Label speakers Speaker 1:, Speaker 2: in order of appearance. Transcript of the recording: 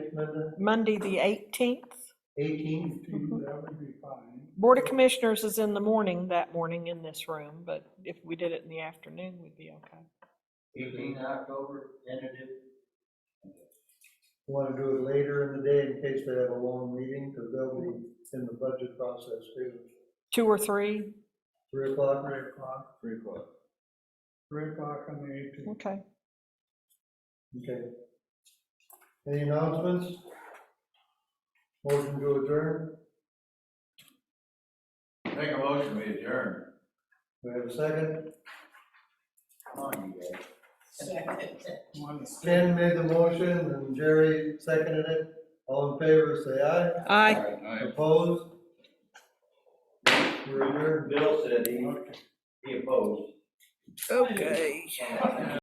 Speaker 1: Linda?
Speaker 2: Monday, the 18th.
Speaker 1: Eighteenth?
Speaker 3: that would be fine.
Speaker 2: Board of Commissioners is in the morning that morning in this room, but if we did it in the afternoon, we'd be okay.
Speaker 1: Eighteen October, tentative. Want to do it later in the day in case they have a long meeting, because they'll be in the budget process too.
Speaker 2: Two or three?
Speaker 1: Three o'clock,
Speaker 3: Three o'clock,
Speaker 4: Three o'clock.
Speaker 3: three o'clock on the eighteenth.
Speaker 2: Okay.
Speaker 1: okay. Any announcements? Motion to adjourn,
Speaker 4: Make a motion, we adjourn.
Speaker 1: we have a second,
Speaker 4: Come on, you guys.
Speaker 1: Ken made the motion and Jerry seconded it, all in favor, say aye.
Speaker 2: Aye.
Speaker 4: Aye.
Speaker 1: Opposed? We're adjourned.
Speaker 4: Bill said he, he opposed.
Speaker 2: Okay.